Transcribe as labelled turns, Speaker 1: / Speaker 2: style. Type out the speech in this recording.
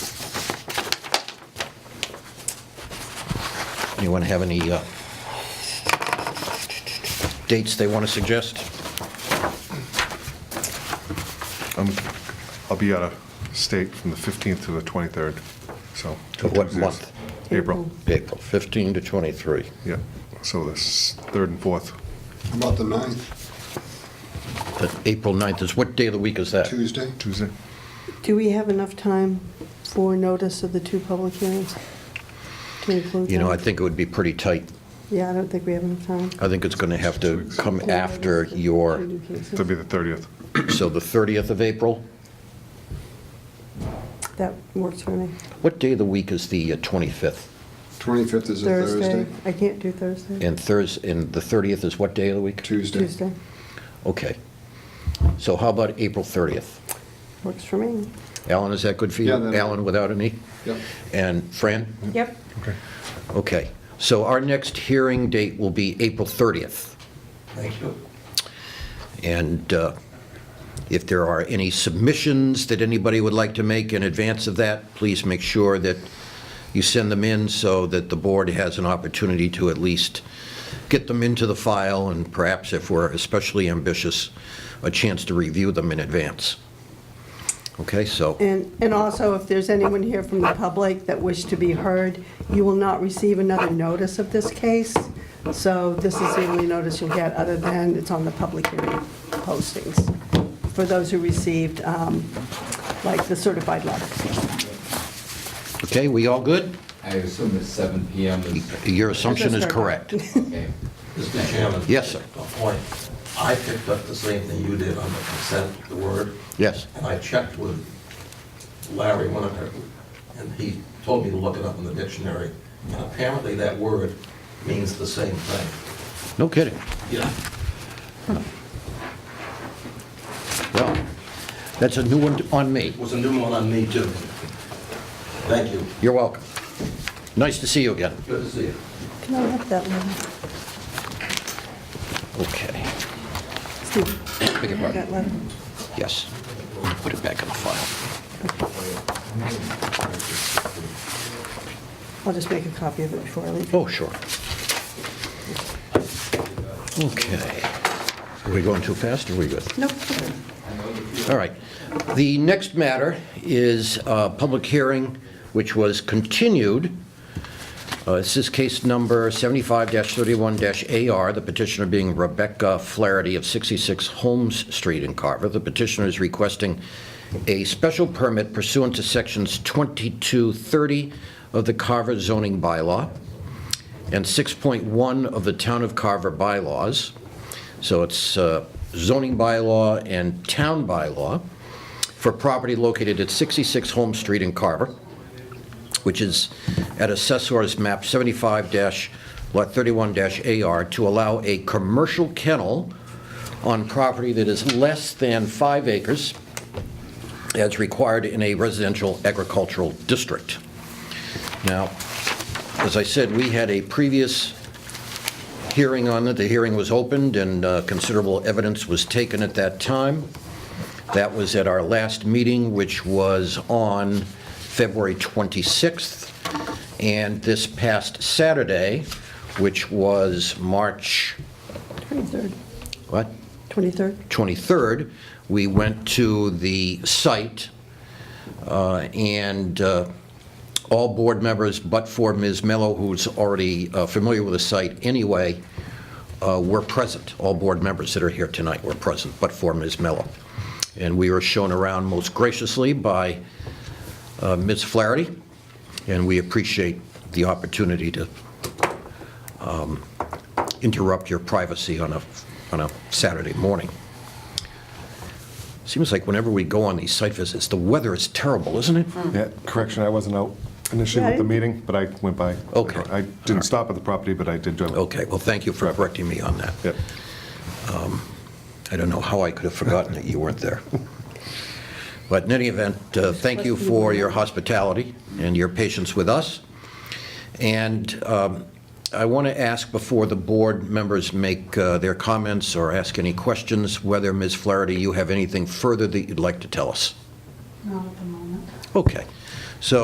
Speaker 1: Anyone have any uh, dates they want to suggest?
Speaker 2: I'll be out of state from the 15th to the 23rd, so.
Speaker 1: To what
Speaker 2: Tuesdays.
Speaker 1: month?
Speaker 2: April,
Speaker 1: April 15 to 23.
Speaker 2: yeah. So this, 3rd and 4th,
Speaker 3: How About the 9th,
Speaker 1: But April 9th is, what day of the week is that?
Speaker 3: Tuesday.
Speaker 2: Tuesday.
Speaker 4: Do we have enough time for notice of the two public hearings? To include
Speaker 1: You know, I
Speaker 4: them?
Speaker 1: think it would be pretty tight.
Speaker 4: Yeah, I don't think we have enough time.
Speaker 1: I think it's going to have to come after your,
Speaker 2: That'll be the 30th.
Speaker 1: so the 30th of April?
Speaker 4: That works for me.
Speaker 1: What day of the week is the uh, 25th?
Speaker 3: 25th is a Thursday.
Speaker 4: Thursday, I can't do Thursday.
Speaker 1: And Thursday, and the 30th is what day of the week?
Speaker 3: Tuesday.
Speaker 4: Tuesday,
Speaker 1: Okay. So how about April 30th?
Speaker 4: works for me.
Speaker 1: Alan, is that good for you?
Speaker 3: Yeah, that-
Speaker 1: Alan without an E?
Speaker 3: Yep.
Speaker 1: And Fran?
Speaker 4: Yep.
Speaker 2: Okay.
Speaker 1: Okay. So our next hearing date will be April 30th.
Speaker 5: Thank you.
Speaker 1: And uh, if there are any submissions that anybody would like to make in advance of that, please make sure that you send them in so that the board has an opportunity to at least get them into the file and perhaps, if we're especially ambitious, a chance to review them in advance. Okay, so,
Speaker 4: And, and also, if there's anyone here from the public that wish to be heard, you will not receive another notice of this case. So this is the only notice you'll get, other than it's on the public hearing postings, for those who received, um, like, the certified letters.
Speaker 1: okay, we all good?
Speaker 5: I assume it's 7 PM is,
Speaker 1: Your assumption is
Speaker 4: That's right.
Speaker 1: correct.
Speaker 5: okay.
Speaker 6: Mr. Chairman?
Speaker 1: Yes, sir.
Speaker 6: A point. I picked up the same thing you did on the consent, the word,
Speaker 1: Yes,
Speaker 6: and I checked with Larry when I heard, and he told me to look it up in the dictionary, and apparently that word means the same thing.
Speaker 1: no kidding.
Speaker 6: Yeah.
Speaker 1: Well, that's a new one on me.
Speaker 6: It was a new one on me, too. Thank you.
Speaker 1: You're welcome. Nice to see you again.
Speaker 6: Good to see you.
Speaker 4: Can I have that letter?
Speaker 1: Okay,
Speaker 4: Steve,
Speaker 1: beg your pardon.
Speaker 4: that letter?
Speaker 1: Yes. Put it back in the file.
Speaker 4: I'll just make a copy of it before I leave.
Speaker 1: Oh, sure. Okay. Are we going too fast or are we good?
Speaker 4: Nope.
Speaker 1: All right. The next matter is a public hearing, which was continued. Uh, This is case number 75-31-AR, the petitioner being Rebecca Flaherty of 66 Holmes Street in Carver. The petitioner is requesting a special permit pursuant to Sections 2230 of the Carver zoning bylaw and 6.1 of the Town of Carver bylaws. So it's uh, zoning bylaw and town bylaw for property located at 66 Holmes Street in Carver, which is at Assessor's Map 75-31-AR, to allow a commercial kennel on property that is less than five acres as required in a residential agricultural district. Now, as I said, we had a previous hearing on it. The hearing was opened, and uh, considerable evidence was taken at that time. That was at our last meeting, which was on February 26th. And this past Saturday, which was March,
Speaker 4: 23rd.
Speaker 1: what,
Speaker 4: 23rd?
Speaker 1: 23rd, we went to the site, uh, and uh, all board members, but for Ms. Mello, who's already uh, familiar with the site anyway, uh, were present. All board members that are here tonight were present, but for Ms. Mello. And we were shown around most graciously by uh, Ms. Flaherty, and we appreciate the opportunity to um, interrupt your privacy on a, on a Saturday morning. Seems like whenever we go on these site visits, the weather is terrible, isn't it?
Speaker 2: Yeah, correction, I wasn't out initially with the
Speaker 4: Right.
Speaker 2: meeting, but I went by.
Speaker 1: Okay.
Speaker 2: I didn't stop at the property, but I did drive.
Speaker 1: Okay, well, thank you for correcting me on that.
Speaker 2: Yeah.
Speaker 1: I don't know how I could have forgotten that you weren't there. But in any event, uh, thank you for your hospitality and your patience with us. And um, I want to ask, before the board members make uh, their comments or ask any questions, whether, Ms. Flaherty, you have anything further that you'd like to tell us?
Speaker 7: Not at the moment.
Speaker 1: Okay.